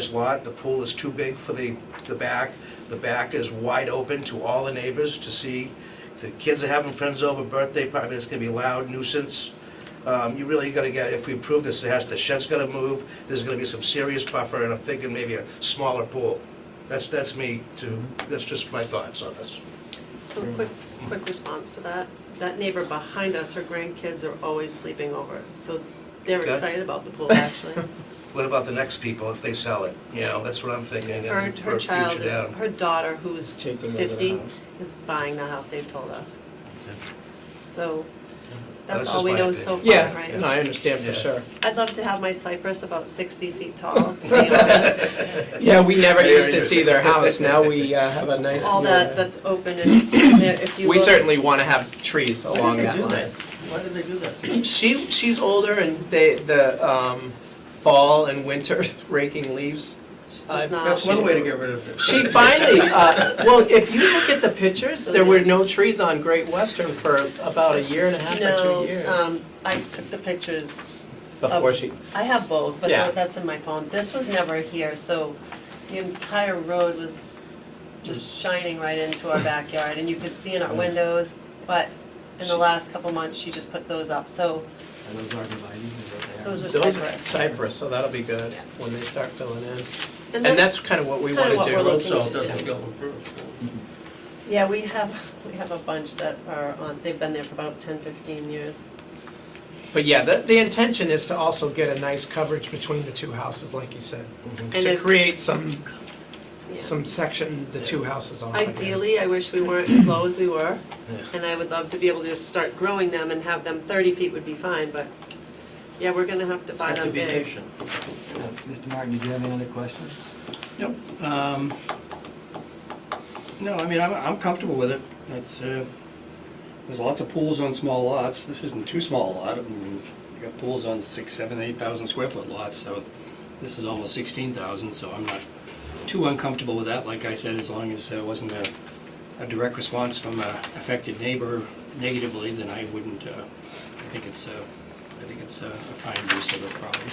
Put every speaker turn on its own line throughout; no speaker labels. this lot, the pool is too big for the, the back. The back is wide open to all the neighbors to see. If The kids are having friends over, birthday party, it's gonna be loud nuisance. Um, you really gotta get, if we approve this, it has, the shed's gotta move, there's gonna be some serious buffer, and I'm thinking maybe a smaller pool. That's, that's me too, that's just my thoughts on this.
So quick, quick response to that. That neighbor behind us, her grandkids are always sleeping over, so they're
Okay.
excited about the pool, actually.
What about the next people if they sell it? You know, that's what I'm thinking.
Her,
and
her
for
child
future
is,
down.
her daughter, who's
Taking over the
fifty,
house.
is buying the house, they've told us.
Okay.
So,
that's
that's
just
all we
my
know so
opinion.
far,
Yeah, no,
right?
I understand for
Yeah.
sure.
I'd love to have my cypress about sixty feet tall, to be honest.
Yeah, we never
Very
used to
good.
see their house, now we uh, have a nice view.
All
of
that,
it.
that's open and there- if you look.
We certainly want to have trees
Why
along
did
that
they do that?
line.
Why did they do that?
She, she's older and they, the um, fall and winter raking leaves.
She
I-
does not.
That's one way to get rid of it.
She finally, uh, well, if you look at the pictures, there were no trees on Great Western for about a year and a half or
No,
two years.
um, uh, I took the pictures
Before she,
I have both, but
Yeah.
that's in my phone. This was never here, so the entire road was just
Mm.
shining right into our backyard, and you could see in our windows. But in the last couple months, she just put those up, so
And those aren't dividing, is what they are.
those are
those are
cypress.
cypress, so that'll be good
Yeah.
when they start filling in. And that's
that's-
kind of what we
kinda
want
what
to
we're
do.
Road
looking
salt
to
doesn't
do.
go approved.
yeah, we have we have a bunch that are on. They've been there for about 10, 15 years.
But yeah, the, the intention is to also get a nice coverage between the two houses, like you said,
Mm-hmm.
And
to
if-
create some,
yeah.
some section the two houses on.
Ideally, I wish we weren't as low as we were,
Yeah.
and I would love to be able to just start growing them and have them 30 feet would be fine, but, yeah, we're gonna have to buy
Have to
them
be
big.
patient.
Mr. Martin, did you have any other questions?
Nope. Um, No, I mean, I'm, I'm comfortable with it. It's, uh, there's lots of pools on small lots. This isn't too small a lot. I mean, you got pools on six, seven, eight thousand square foot lots, so this is almost sixteen thousand, so I'm not too uncomfortable with that, like I said, as long as there wasn't a, a direct response from a affected neighbor negatively, then I wouldn't, uh, I think it's, uh, I think it's uh, a fine use of the property.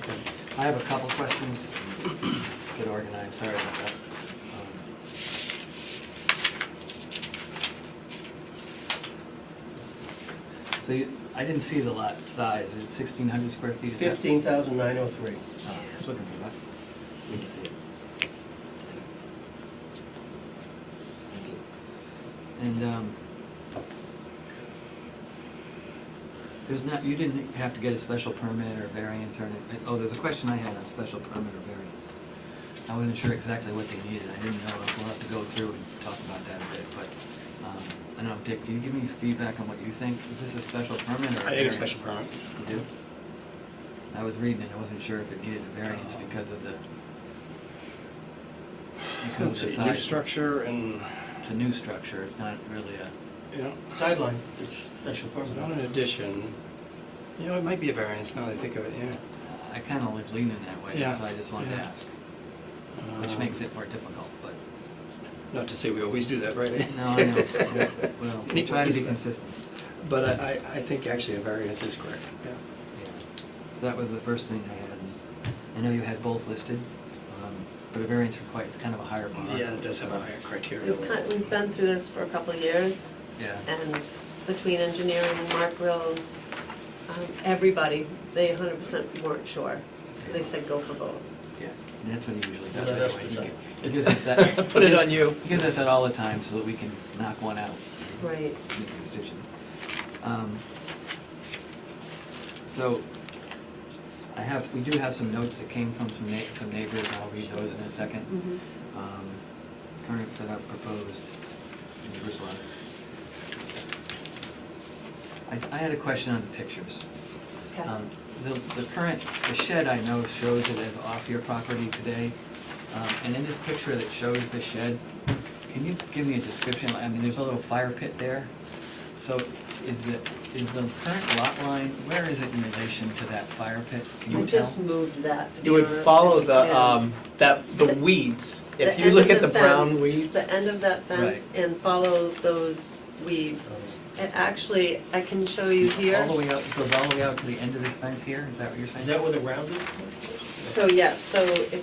Okay. I have a couple questions. Get organized, sorry about that. Um, So you, I didn't see the lot size, it's sixteen hundred square feet? is that-
Fifteen thousand nine oh three.
Oh, I was looking for that. Didn't see it. Thank you. And, um, there's not, you didn't have to get a special permit or variance or, anything. oh, there's a question I had on special permit or variance. I wasn't sure exactly what they needed, I didn't know, we'll have to go through and talk about that a bit, but, um, I don't know, Dick, can you give me feedback on what you think? Is this a special permit or a variance?
permit.
You do? I was reading it, I wasn't sure if it needed a variance because of the,
Let's
because of
see,
the
new
size.
structure and,
It's a new structure, it's not really a,
you know,
Sideline, it's special
it's not
permit.
an addition. You know, it might be a variance now that I think of it, yeah.
I kinda was leaning that way,
Yeah,
so I just wanted to
yeah.
ask, which
Um,
makes it more difficult, but,
Not to say we always do that, right?
no, I know, well, we try to be
Anyway.
consistent.
But I, I- I think actually a variance is correct, yeah.
Yeah. So that was the first thing I had, and I know you had both listed, um, but a variance requires kind of a higher bar.
Yeah, it does have a higher criteria.
We've kind, we've been through this for a couple of years,
Yeah,
and between engineering, Mark Rills, um, everybody, they hundred percent weren't sure, so they said go for both.
yeah, and that's what he usually
Yeah, that's
does anyway.
the
He
same.
gi- He gives us that.
Put it on you.
He gives us that all the time so that we can knock one out,
Right.
make a decision. Um, So I have, we do have some notes that came from some na- some neighbors, and I'll read those in a second.
Mhm.
Um, Current setup proposed, neighbors' lots. I I had a question on the pictures.
Okay.
Um, The, the current, the shed I know shows it as off your property today. Um, And in this picture that shows the shed, can you give me a description? I mean, there's a little fire pit there. So is the, is the current lot line, where is it in relation to that fire pit? Can
I
you tell?
just moved that, to be
You would
honest.
follow the,
Yeah.
um, that, the weeds. If
The
you
end
look
of
at the brown
fence-
weeds,
The end of that fence and follow those weeds. And actually, I can show you here.
All the way out, it goes all the way out to the end of this fence here? Is that what you're saying?
Is that where the rounded?
So yes, so if